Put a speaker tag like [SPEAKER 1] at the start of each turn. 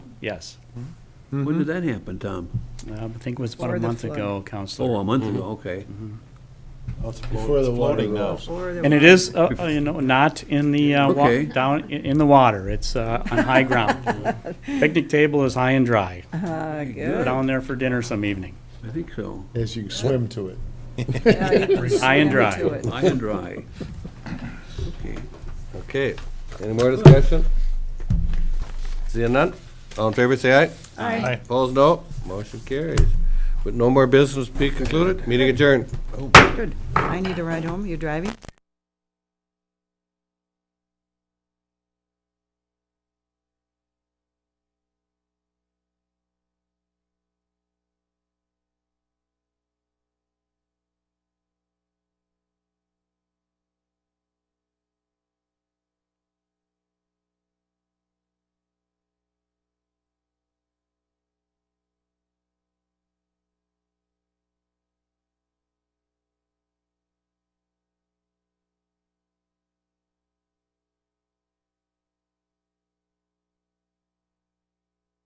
[SPEAKER 1] Yes. Um,
[SPEAKER 2] When did that happen, Tom?
[SPEAKER 1] I think it was about
[SPEAKER 3] Or
[SPEAKER 1] a
[SPEAKER 3] the
[SPEAKER 1] month
[SPEAKER 3] flood.
[SPEAKER 1] ago,
[SPEAKER 2] Oh,
[SPEAKER 1] Counselor.
[SPEAKER 2] a month ago, okay.
[SPEAKER 4] Before the water goes.
[SPEAKER 3] Or the
[SPEAKER 1] And it
[SPEAKER 3] water.
[SPEAKER 1] is, uh, uh, you know, not in the, uh, wa-
[SPEAKER 2] Okay.
[SPEAKER 1] down, i- in the water. It's uh, on high ground. Picnic table is high and dry.
[SPEAKER 3] Ah,
[SPEAKER 1] Go
[SPEAKER 3] good.
[SPEAKER 1] Down there for dinner some evening.
[SPEAKER 2] I think so.
[SPEAKER 4] As you swim to it.
[SPEAKER 3] Yeah, you can
[SPEAKER 1] High and
[SPEAKER 3] swim
[SPEAKER 1] dry.
[SPEAKER 3] to it.
[SPEAKER 2] High and dry. Okay.
[SPEAKER 5] Okay, any more discussion? Seeing none, all in favor, say aye.
[SPEAKER 3] Aye.
[SPEAKER 5] Opposed, no. Motion carries. With no more business to be concluded, meeting adjourned.
[SPEAKER 3] Good. I need to ride home. You're driving?